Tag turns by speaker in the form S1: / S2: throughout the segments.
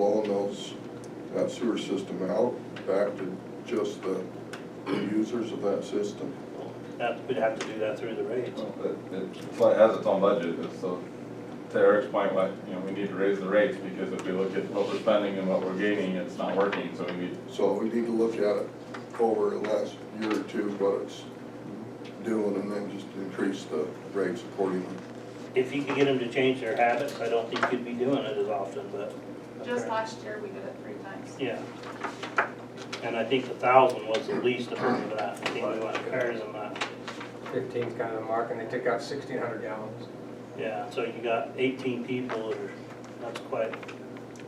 S1: those, that sewer system out back to just the users of that system?
S2: That, we'd have to do that through the rates.
S3: Well, It, it's like, has its own budget, it's so, to Eric's point, like, you know, we need to raise the rates, because if we look at what we're spending and what we're gaining, it's not working, so we need,
S1: So we need to look at it over the last year or two, what it's doing, and then just increase the rates accordingly.
S2: If you could get them to change their habits, I don't think you'd be doing it as often, but.
S4: Just last year, we did it three times.
S2: Yeah. And I think the thousand was the least of them, but I think we went higher than that.
S5: fifteen's kind of the mark, and they took out sixteen hundred gallons.
S2: Yeah, so you got eighteen people that are, that's quite,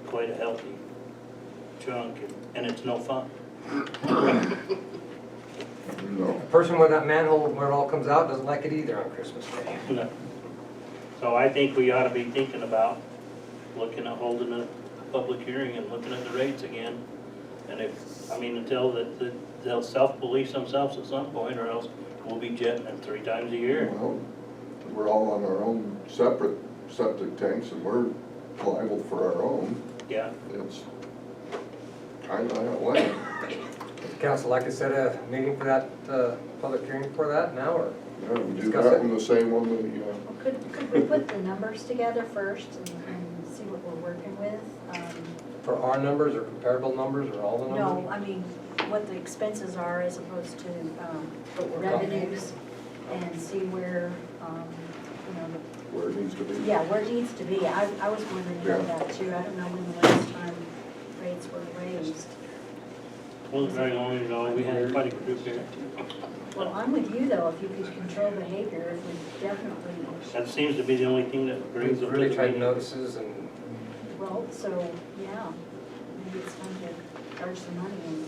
S2: quite a healthy chunk, and- and it's no fun.
S1: No,
S5: The person with that manhole where it all comes out doesn't like it either on Christmas Day.
S2: No. So I think we ought to be thinking about looking at holding a public hearing and looking at the rates again. And if, I mean, until that, that they'll self-police themselves at some point, or else we'll be jetting them three times a year.
S1: well, we're all on our own separate septic tanks, and we're liable for our own.
S2: Yeah,
S1: It's kinda that way.
S5: Council, like I said, a meeting for that, uh, public hearing for that now, or?
S1: Yeah, we do
S5: Discuss
S1: that
S5: it.
S1: in the same one that, you know,
S6: Well, Could, could we put the numbers together first and and see what we're working with? Um,
S5: For our numbers, or comparable numbers, or all the
S6: No,
S5: numbers?
S6: I mean, what the expenses are as opposed to um,
S5: What we're talking.
S6: revenues and see where, um, you
S1: where it needs to be.
S6: know, yeah, where it needs to be. I, I was wondering about
S1: Yeah.
S6: that too. I don't know when the last time rates were raised.
S2: wasn't very long ago, we had quite a group here.
S6: Well, I'm with you though, if you could control behavior, it would definitely,
S2: That seems to be the only thing that brings
S5: We've
S2: them to
S5: really
S2: the
S5: tried
S2: meeting.
S5: notices and
S6: well, so, yeah. Maybe it's time to charge some money and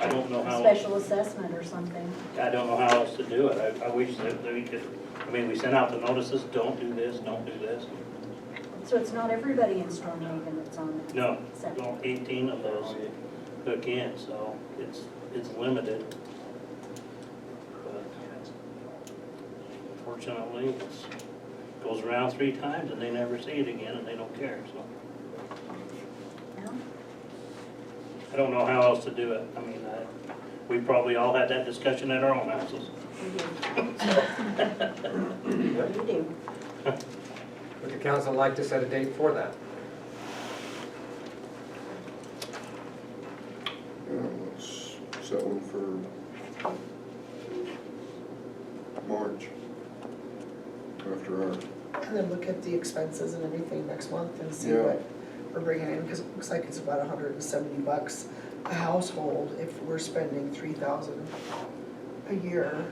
S2: I don't know how,
S6: special assessment or something.
S2: I don't know how else to do it. I, I wish that that we could, I mean, we sent out the notices, don't do this, don't do this.
S6: So it's not everybody in Stormhaven that's on the
S2: No,
S6: septic?
S2: well, eighteen of those hook in, so it's, it's limited. But Fortunately, it's, goes around three times and they never see it again and they don't care, so.
S6: No?
S2: I don't know how else to do it. I mean, I, we probably all had that discussion at our own houses.
S6: We do. We do.
S5: would the council like to set a date for that?
S1: Yeah, let's set one for March, after our,
S7: And then look at the expenses and everything next month and see
S1: Yeah.
S7: what we're bringing in, because it looks like it's about hundred and seventy bucks a household if we're spending three thousand a year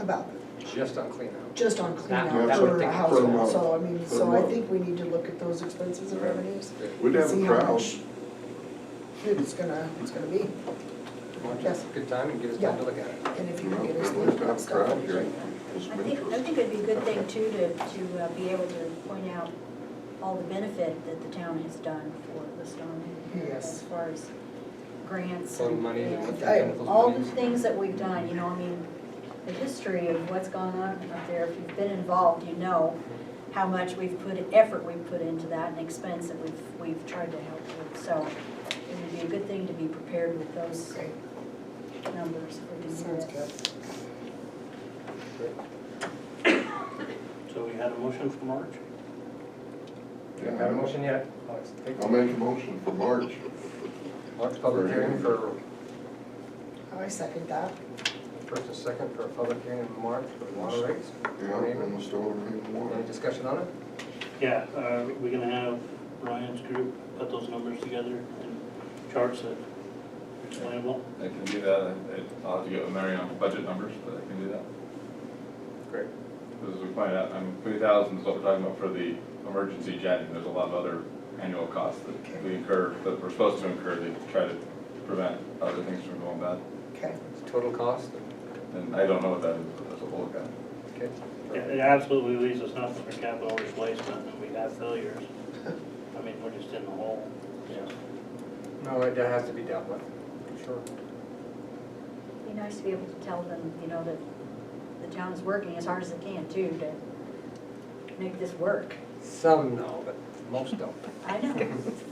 S7: about,
S5: Just on cleanout?
S7: just on
S5: That-
S7: cleanout
S1: that would
S7: for
S1: take
S7: a
S1: a
S7: household.
S1: month.
S7: So I mean,
S1: For a
S7: so I
S1: month.
S7: think we need to look at those expenses and
S1: Right.
S7: revenues.
S1: we'd have
S7: See
S1: a
S7: how
S1: crowd.
S7: much It's gonna, it's gonna be,
S5: Why don't you have a Good time and give us time to look at it.
S7: and if
S1: You
S7: you
S1: know,
S7: can get us
S1: we'd have a
S7: that stuff.
S1: crowd
S7: that'd be
S1: here.
S7: great.
S1: It's
S6: I think, I
S1: interesting.
S6: think it'd be a good thing too to, to uh, be able to point out all the benefit that the town has done for the Stormhaven. area
S7: Yes.
S6: As far as grants
S5: Phone
S6: and,
S5: money and what
S6: and
S5: they've done with those
S6: all the
S5: monies.
S6: things that we've done, you know, I mean, the history of what's gone on up there, if you've been involved, you know how much we've put, effort we've put into that and expense that we've, we've tried to help with. So it would be a good thing to be prepared with those
S7: Great,
S6: numbers for the uh,
S7: sounds
S6: year.
S7: good.
S2: So we had a motion for March.
S5: Haven't had a motion yet? Let's take
S1: I'll make a motion for March.
S5: March public hearing for,
S7: I second that.
S5: first and second for a public hearing in March for water rates.
S1: Yeah, on the store, in
S5: Any
S1: one.
S5: discussion on it?
S2: Yeah, uh, we're gonna have Ryan's group put those numbers together and charts that explainable.
S3: I can do that, I- I'll have to get with Mary on budget numbers, but I can do that.
S5: Great.
S3: Because as we pointed out, I mean, three thousand is what we're talking about for the emergency jetting, there's a lot of other annual costs that we incur, that we're supposed to incur to try to prevent other things from going bad.
S7: Okay,
S5: It's total cost,
S3: And I don't know what that is, but that's what we'll look at.
S5: okay?
S2: It it absolutely leaves us nothing for capital replacement, and we have failures. I mean, we're just in the hole.
S5: No, that has to be dealt with. Sure.
S6: Be nice to be able to tell them, you know, that the town is working as hard as it can too to make this work.
S5: Some no, but most don't.
S6: I know,